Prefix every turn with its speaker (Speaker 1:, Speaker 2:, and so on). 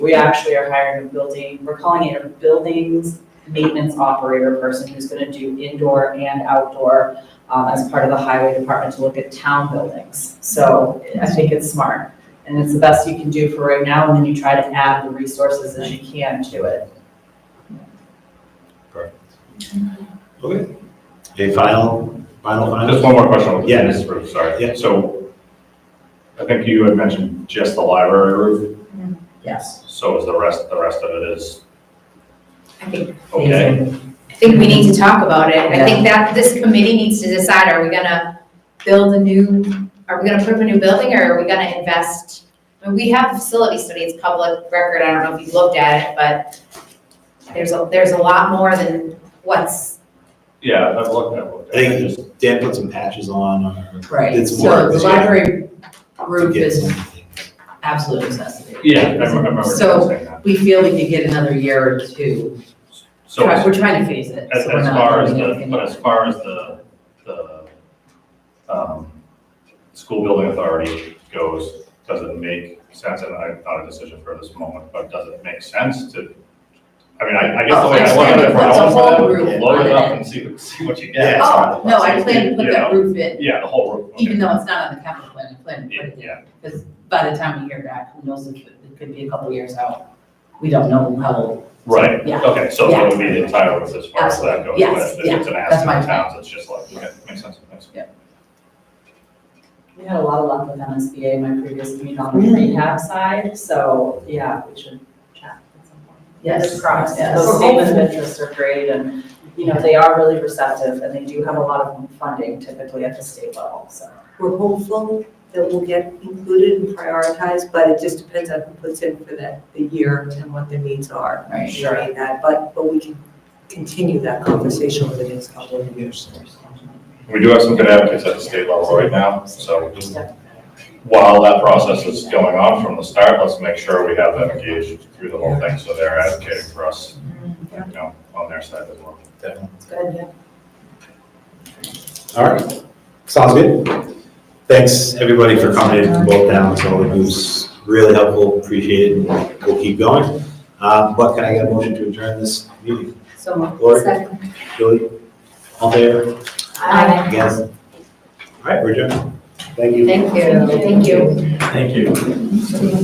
Speaker 1: We actually are hiring a building, we're calling it a buildings maintenance operator person who's gonna do indoor and outdoor um, as part of the highway department to look at town buildings. So I think it's smart, and it's the best you can do for right now, and then you try to add the resources as you can to it.
Speaker 2: Okay.
Speaker 3: Okay, final, final,
Speaker 2: Uh,
Speaker 3: final?
Speaker 2: Just one more question.
Speaker 3: Yeah.
Speaker 2: This is Bruce, sorry.
Speaker 3: Yeah.
Speaker 2: So I think you had mentioned just the library roof,
Speaker 4: Yes.
Speaker 2: so is the rest, the rest of it is
Speaker 4: I think,
Speaker 2: okay?
Speaker 4: I think we need to talk about it. I think that this committee needs to decide, are we gonna build a new, are we gonna put up a new building or are we gonna invest? I mean, We have a facility study, it's public record, I don't know if you've looked at it, but there's a, there's a lot more than what's,
Speaker 2: Yeah, I've looked at it.
Speaker 3: I think Dan put some patches on or.
Speaker 5: Right,
Speaker 3: It's
Speaker 5: so
Speaker 3: more-
Speaker 5: the library
Speaker 3: to
Speaker 5: roof
Speaker 3: get
Speaker 5: is
Speaker 3: something.
Speaker 5: absolute necessity.
Speaker 2: Yeah, I remember, I remember you
Speaker 5: So-
Speaker 2: saying that.
Speaker 5: We feel we could get another year or two.
Speaker 2: So
Speaker 5: Try-
Speaker 2: as,
Speaker 5: We're trying to phase it.
Speaker 2: as
Speaker 5: so we're not
Speaker 2: far as
Speaker 5: building
Speaker 2: the,
Speaker 5: anything
Speaker 2: but as far as the, the, um, school building authority goes, does it make sense? And I thought a decision for this moment, but does it make sense to, I mean, I, I guess the
Speaker 5: Oh,
Speaker 2: way I
Speaker 5: I
Speaker 2: look at it,
Speaker 5: understand.
Speaker 2: for
Speaker 5: It's a
Speaker 2: all
Speaker 5: whole
Speaker 2: of
Speaker 5: roof
Speaker 2: it, load
Speaker 5: on
Speaker 2: it
Speaker 5: it.
Speaker 2: up and see, see what you get.
Speaker 3: Yeah.
Speaker 5: Oh, no, I plan to put
Speaker 2: You know,
Speaker 5: that roof in,
Speaker 2: Yeah, the whole roof.
Speaker 5: even
Speaker 2: okay.
Speaker 5: though it's not on the capital plan, I plan to put it in.
Speaker 2: Yeah,
Speaker 5: Because by the time we hear back, who knows, if it it could be a couple years out. We don't know how,
Speaker 2: right,
Speaker 5: Yeah.
Speaker 2: okay, so it would be the entire roof as far as that
Speaker 5: Absolutely.
Speaker 2: goes,
Speaker 5: Yes,
Speaker 2: but if it's an
Speaker 5: that's my
Speaker 2: asset in towns, it's just like, okay, makes sense, makes sense.
Speaker 1: We had a lot of luck with MSBA in my previous meeting on the rehab side, so yeah, we should chat at some point.
Speaker 5: yes.
Speaker 1: Cross,
Speaker 5: yes.
Speaker 1: those statements of interest are great and, you know, they are really receptive and they do have a lot of funding typically at the state level, so.
Speaker 6: We're hopeful that we'll get included and prioritized, but it just depends on who puts in for that, the year and what the needs are.
Speaker 5: Right.
Speaker 6: Sure. That, but, but we can continue that conversation over the next couple of years.
Speaker 2: We do have some good advocates at the state level right now, so while that process is going on from the start, let's make sure we have them engaged through the whole thing, so they're advocating for us, you know, on their side as well.
Speaker 3: Definitely.
Speaker 4: it's good.
Speaker 3: All right, sounds good. Thanks, everybody, for coming in from both towns, so it was really helpful, appreciate it, and we'll keep going. Um, but can I get a motion to adjourn this meeting?
Speaker 4: So
Speaker 3: Lori?
Speaker 4: Second.
Speaker 3: Julie, all there,
Speaker 4: Aye.
Speaker 3: against? All right, we're adjourned. Thank you.
Speaker 4: Thank you, thank you.
Speaker 3: Thank you.